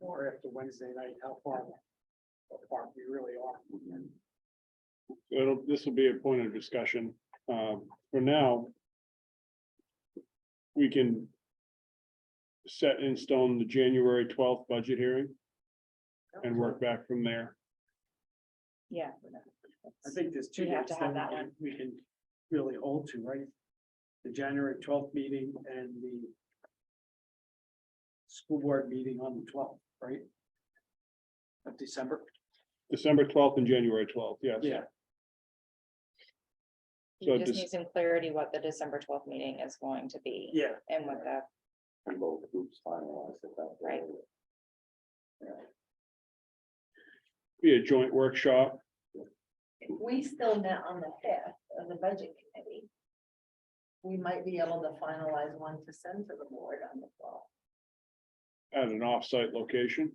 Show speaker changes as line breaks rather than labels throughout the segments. or after Wednesday night, how far apart we really are.
So it'll, this will be a point of discussion. Um, for now. We can. Set in stone the January twelfth budget hearing and work back from there.
Yeah.
I think there's two
We have
dates
to have
that
that
we can- we can really hold to, right? The January twelfth meeting and the school board meeting on the twelfth, right? Of December.
December twelfth and January twelfth, yes. So
You just
dis-
need some clarity what the December twelfth meeting is going to be
Yeah.
and what the,
And both groups finalize it that.
Right.
Be a joint workshop.
If we still met on the fifth of the budget committee. We might be able to finalize one to send to the board on the fall.
at an off-site location.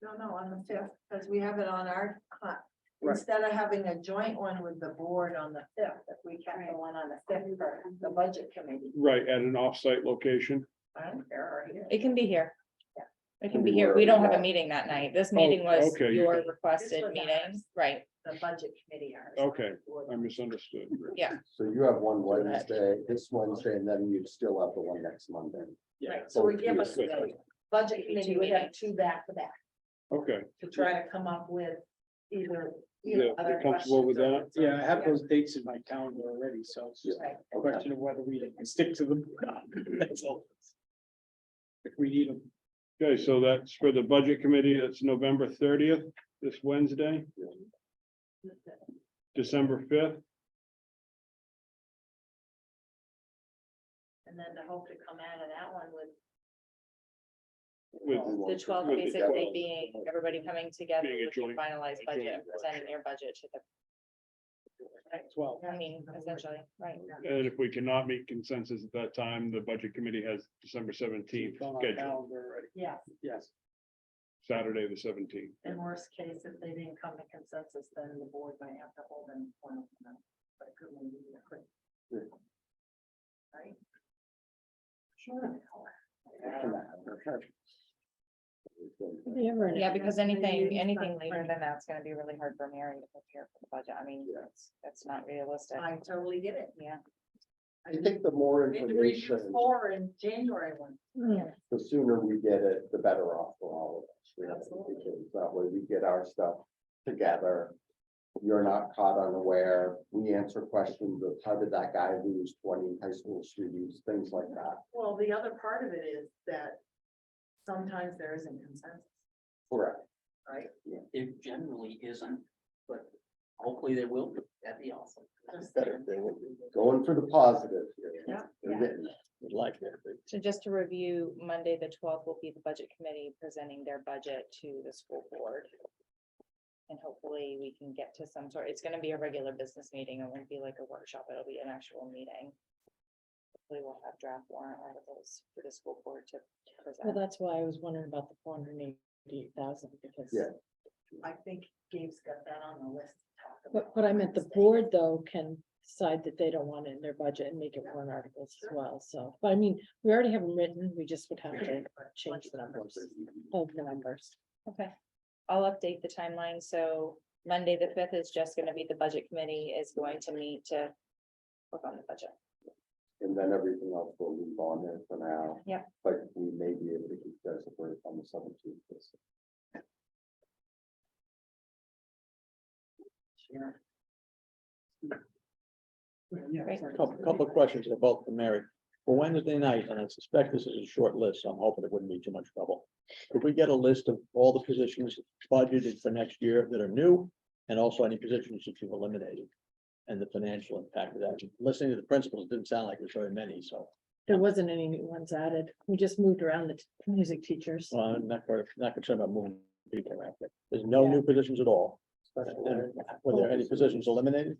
No, no, on the fifth, because we have it on our, cla-
Right.
instead of having a joint one with the board on the fifth, if we kept the one on the fifth for the budget committee.
Right, at an off-site location.
I don't care, or here.
it can be here.
Yeah.
It can be here. We don't have a meeting that night. This meeting was
okay, you
your
can-
This
requested
was
meeting,
ours.
right?
the budget committee. ours.
Okay, Um, I misunderstood.
So you have one
So that-
Wednesday, this Wednesday, and then you still have the one next Monday.
Right, so we give us
Good.
the budget committee, we have two back to back
Okay,
to try to come up with either. either
Yeah,
other
you're comfortable with
questions or-
Yeah, I have those dates in my calendar already, so it's just
Right.
a question of whether we can stick to them. or not. That's all. If we need them.
okay, so that's for the budget committee. That's November thirtieth, this Wednesday, December fifth.
And then to hope to come out of that one with
With-
The twelfth
Good.
basically being everybody coming together
Being a
with your
joint-
finalized
a
budget,
joint
and presenting your budget to the,
Twelve.
I mean, essentially, right?
And if we cannot meet consensus at that time, the budget committee has December seventeenth
It's on our
scheduled,
calendar already.
Yeah,
Yes,
Saturday, the seventeenth.
in worst case, if they didn't come to consensus, then the board might have to hold an appointment. But it could maybe be a quick. Right? Sure.
Yeah, because anything,
meeting's
anything
not
later
planned.
than that's gonna be really hard for Mary to prepare for the budget. I mean, that's, that's not realistic.
I totally get it.
Yeah.
I think the more
We had to read
information,
Four in January one.
the sooner we get it, the better off for all of us. you know,
Absolutely.
because That way we get our stuff together. You're not caught unaware. We answer questions of how did that guy lose twenty high school students, things like that.
Well, the other part of it is that sometimes there isn't consensus,
Correct.
right?
It generally isn't, but hopefully there will be. That'd be awesome.
Just-
Better thing, going for the positive here.
Yeah.
They're getting it. We'd like that.
So just to review, Monday, the twelfth will be the budget committee presenting their budget to the school board. And hopefully we can get to some sort, it's gonna be a regular business meeting. It won't be like a workshop. It'll be an actual meeting. Hopefully we'll have draft warrant articles for the school board to
Well,
present.
that's why I was wondering about the four hundred and eighty thousand, because.
Yeah.
I think Gabe's got that on the list to talk about.
But, but I meant the
Wednesday.
board though can decide that they don't want it in their budget and make it warrant articles as well, so, but I mean, we already have them written, we just would have to change the numbers of the numbers.
Okay, I'll update the timeline. So Monday, the fifth is just gonna be the budget committee is going to meet to work on the budget.
And then everything else will move on there for now.
Yep.
But we may be able to keep those separate on the seventeenth.
Sure.
yeah.
Couple, couple of questions about the Mary. For Wednesday night, and I suspect this is a short list, so I'm hoping it wouldn't be too much trouble. Could we get a list of all the positions budgeted for next year that are new? And also any positions that you've eliminated? And the financial impact of that. Listening to the principals, it didn't sound like there's very many, so.
There wasn't any new ones added, we just moved around the t- music teachers.
Well, I'm not, very- not concerned about moving people around. but There's no new positions at all. And Were there any positions eliminated?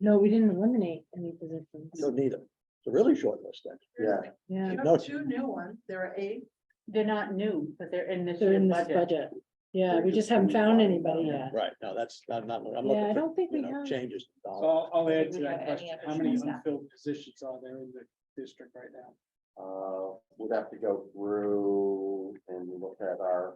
No, we didn't eliminate any positions,
No, neither. It's a really short list then.
Yeah,
yeah,
You
No.
have two new ones, there are eight.
They're not new, but they're in this
they're in
year's
this
budget.
budget, yeah, we just haven't found anybody yet.
Right, no, that's, I'm not, I'm
Yeah, I
looking for,
don't think
you
we
know,
have,
changes.
So I'll, I'll add to
Do we have
that
any
question. How
other
many
staff?
unfilled positions are there in the district right now?
uh, we'd have to go through and look at our